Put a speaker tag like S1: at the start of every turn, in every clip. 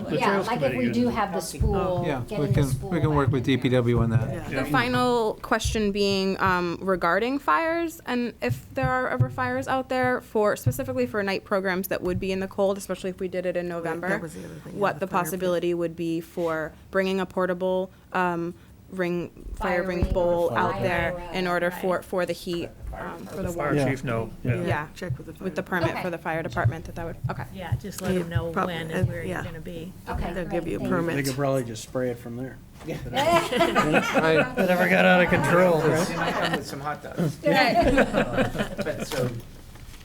S1: The
S2: Yeah,
S1: trails
S2: like if we
S1: committee
S2: do
S1: is-
S2: have the spool,
S3: Oh, Yeah, we
S2: getting the
S3: can,
S2: spool.
S3: we can work
S2: back
S3: with
S2: in there.
S3: DPW on that.
S1: Yeah.
S4: The final question being um, regarding fires and if there are ever fires out there for specifically for night programs that would be in the cold, especially if we did it in November.
S5: that was the other thing, yeah,
S4: What
S5: the
S4: the
S5: fire pit.
S4: possibility would be for bringing a portable um, ring, fire ring
S2: Firing
S4: bowl
S2: or
S4: out
S2: fire
S4: there
S2: or,
S4: in order
S2: right.
S4: for, for the heat, um, for the
S1: Fire
S4: warmth.
S3: Yeah.
S1: chief, no,
S4: Yeah.
S1: yeah.
S5: Check with the fire.
S4: With the permit
S2: Okay.
S4: for the fire department that that would, okay.
S6: Yeah, just let them know
S5: Probably,
S6: when
S5: uh,
S6: and where you're
S5: yeah.
S6: gonna be.
S2: Okay,
S5: They'll give
S2: great,
S5: you
S2: thank you.
S5: a
S7: They
S5: permit.
S7: could probably just spray it from there.
S3: Right.
S7: That never got out of control, right?
S8: They might come with some hot dogs. Uh, But so,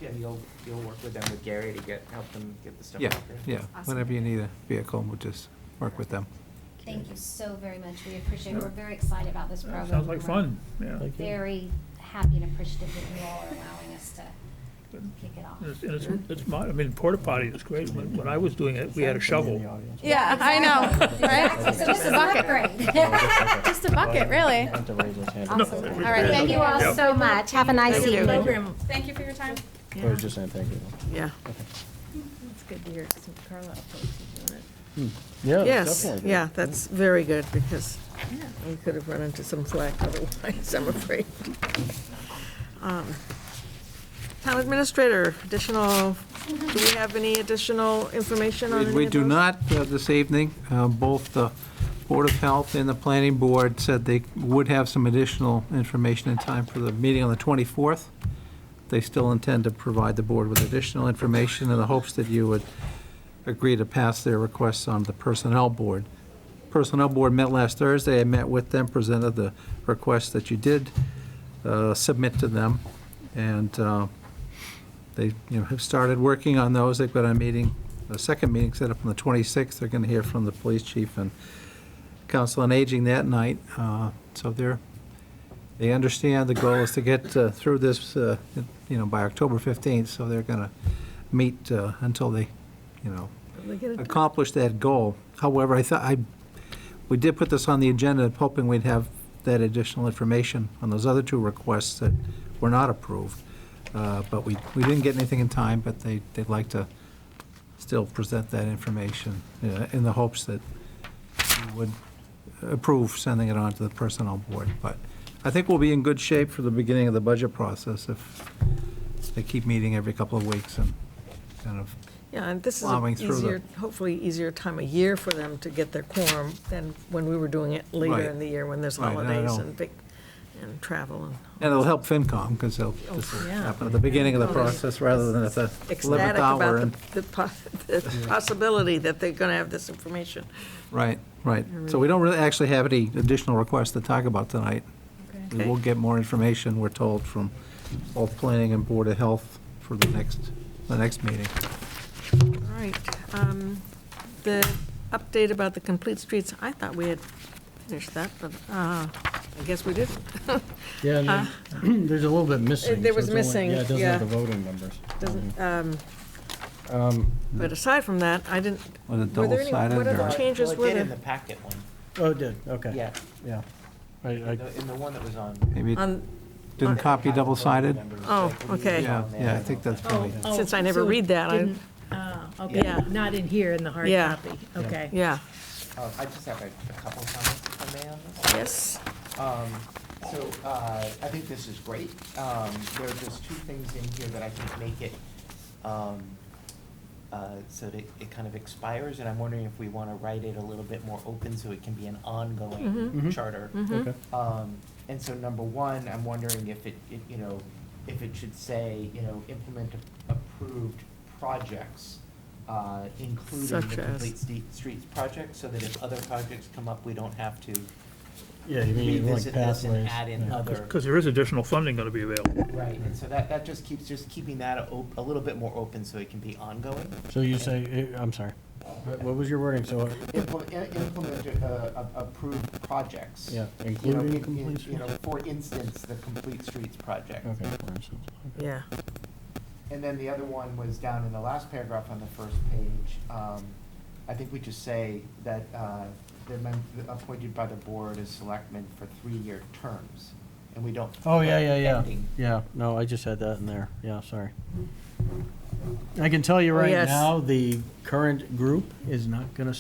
S8: yeah, you'll, you'll work with them, with Gary to get, help them get the stuff
S3: Yeah,
S8: out there.
S3: yeah, whenever you need a vehicle, we'll just work with them.
S2: Thank you so very much, we appreciate it, we're very excited about this program.
S1: Sounds like
S2: We're
S1: fun, yeah.
S7: Thank you.
S2: Very happy and appreciative that you all are allowing us to kick it off.
S1: And It's, and it's- it's, mo- I mean, porta potty is great. When, when I was doing it, we had a shovel.
S4: Yeah, I know,
S2: Exactly, so this is an upgrade.
S4: Just a bucket, really.
S2: Awesome.
S1: All
S4: right,
S2: Thank you all
S1: Yep.
S2: so much, have a nice
S5: Thank you.
S2: evening.
S6: Program,
S4: Thank you for your time.
S5: Yeah,
S7: just saying thank you.
S5: Yeah,
S6: it's good to hear some Carlisle folks are doing
S5: yes, yeah, that's very good, because we could have run into some flack otherwise, I'm afraid. Um, Town administrator, additional, do we have any additional information on any
S3: We-
S5: of
S3: We do
S5: those?
S3: not uh, this evening. Uh, Both the Board of Health and the Planning Board said they would have some additional information in time for the meeting on the 24th. They still intend to provide the board with additional information in the hopes that you would agree to pass their requests on the Personnel Board. Personnel Board met last Thursday. I met with them, presented the requests that you did uh, submit to them, and uh, they, you know, have started working on those. They've got a meeting, a second meeting set up on the 26th. They're going to hear from the police chief and council on aging that night. Uh, So they're, they understand the goal is to get uh, through this, uh, you know, by October 15th, so they're going to meet uh, until they, you know,
S5: They get it-
S3: accomplish that goal. However, I thought, I, we did put this on the agenda hoping we'd have that additional information on those other two requests that were not approved. Uh, But we, we didn't get anything in time, but they, they'd like to still present that information uh, in the hopes that you would approve sending it on to the personnel board. But I think we'll be in good shape for the beginning of the budget process if they keep meeting every couple of weeks and kind of
S5: Yeah, and this is a
S3: plowing through the-
S5: easier, hopefully easier time of year for them to get their quorum than when we were doing it later
S3: Right.
S5: in the year when there's
S3: Right, and I
S5: holidays
S3: know.
S5: and big, and travel and
S3: And it'll help FinCom, because they'll,
S5: Oh,
S3: this will
S6: yeah.
S3: happen at the beginning of the process rather than at the 11th
S5: ecstatic
S3: hour. and-
S5: about the, the po- the possibility that they're gonna have this information.
S3: Right, right. So we don't really actually have any additional requests to talk about tonight. We will get more information, we're told, from both Planning and Board of Health for the next, the next meeting.
S5: All right, um, the update about the complete streets, I thought we had finished that, but, uh, I guess we didn't. Uh,
S7: Yeah, and then there's a little bit missing.
S5: there
S7: so
S5: was
S7: it's only-
S5: missing,
S7: Yeah, it doesn't have
S5: yeah.
S7: the voting numbers. um,
S5: Doesn't, um, but aside from that, I didn't,
S3: Was it
S5: were there any,
S3: double-sided
S5: what
S3: or-
S5: other changes
S8: Well,
S5: were
S8: it did in the
S5: there?
S8: packet one,
S7: Oh, it did, okay.
S8: yeah,
S7: Yeah. I, I,
S8: the- in the one that was on.
S3: Maybe it
S5: On,
S3: didn't copy double-sided?
S5: Oh, Um, okay.
S3: Yeah, yeah, I think that's probably,
S6: Oh,
S5: since I never
S6: so
S5: read that, I,
S6: didn't- Ah, okay,
S5: Yeah.
S6: not in here in the hard
S5: Yeah.
S6: copy, okay.
S5: yeah,
S8: Um, I just have a a couple of comments if I may on this.
S5: yes.
S8: Um, so, uh, I think this is great. Um, there are just two things in here that I think make it, um, uh, so that it kind of expires, and I'm wondering if we wanna write it a little bit more open so it can be an ongoing
S7: Mhm.
S8: charter.
S5: Mm-hmm.
S7: okay.
S8: Um, and so number one, I'm wondering if it, it, you know, if it should say, you know, implement a- approved projects, uh, including the
S5: Such as.
S8: complete ste- streets project, so that if other projects come up, we don't have to
S7: Yeah, you mean like
S8: revisit this and
S7: pathways.
S8: add in
S7: yeah.
S8: other.
S1: Because there is additional funding gonna be available.
S8: Right, and so that, that just keeps, just keeping that a, op- a little bit more open so it can be ongoing.
S7: So you say, eh, I'm sorry, what what was your wording? So,
S8: Implement, implement, uh, a- approved projects.
S7: yeah,
S8: You know,
S7: including
S8: in- in-
S7: complete
S8: You know,
S7: streets?
S8: for instance, the Complete Streets project.
S7: Okay. for instance, okay.
S5: Yeah,
S8: And then the other one was down in the last paragraph on the first page. Um, I think we just say that, uh, they're mem- appointed by the board as selectmen for three-year terms, and we don't.
S7: Oh, yeah, yeah, yeah.
S8: Ending.
S7: Yeah, no, I just had that in there. Yeah, sorry. I can tell you right
S5: Yes.
S7: now, the current group is not going to